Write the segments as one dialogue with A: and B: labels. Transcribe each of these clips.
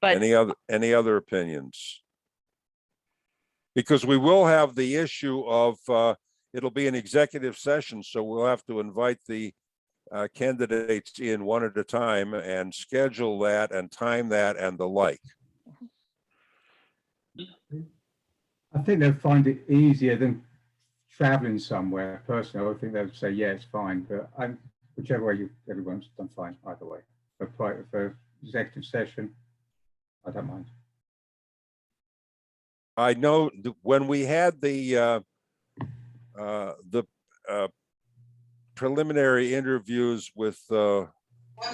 A: But
B: Any other, any other opinions? Because we will have the issue of, uh, it'll be an executive session, so we'll have to invite the uh, candidates in one at a time and schedule that and time that and the like.
C: I think they'll find it easier than traveling somewhere. Personally, I would think they'd say, yeah, it's fine, but I'm, whichever way you, everyone's done fine either way. But pri- for executive session, I don't mind.
B: I know th- when we had the, uh, uh, the, uh, preliminary interviews with, uh,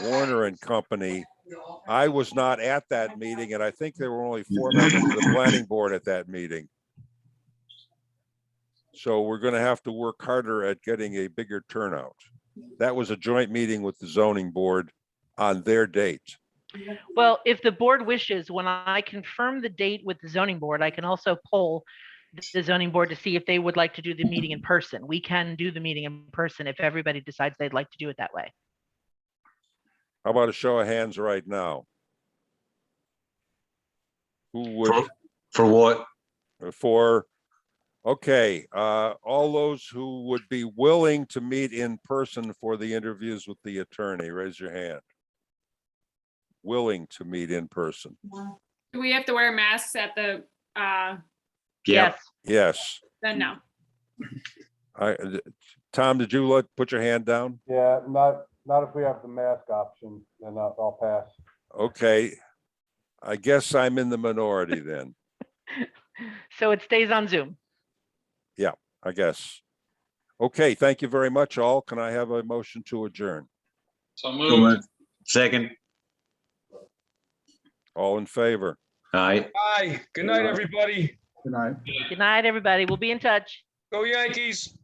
B: Warner and Company, I was not at that meeting, and I think there were only four members of the planning board at that meeting. So we're gonna have to work harder at getting a bigger turnout. That was a joint meeting with the zoning board on their date.
A: well, if the board wishes, when I confirm the date with the zoning board, I can also poll the zoning board to see if they would like to do the meeting in person. We can do the meeting in person if everybody decides they'd like to do it that way.
B: How about a show of hands right now? Who would?
D: For, for what?
B: for, okay, uh, all those who would be willing to meet in person for the interviews with the attorney, raise your hand. Willing to meet in person.
E: Do we have to wear masks at the, uh,
D: Yeah,
A: Yes,
B: Yes,
E: then no?
B: I, uh, Tom, did you let, put your hand down?
F: Yeah, not, not if we have the mask option, then I'll, I'll pass.
B: Okay. I guess I'm in the minority then,
A: so it stays on Zoom.
B: I guess. Okay, thank you very much all. Can I have a motion to adjourn?
G: So
D: So
G: moved.
D: moved. second,
B: All in favor?
D: aye.
G: Hi, good night, everybody.
C: Good night.
A: Good night, everybody. We'll be in touch.
G: Go Yankees.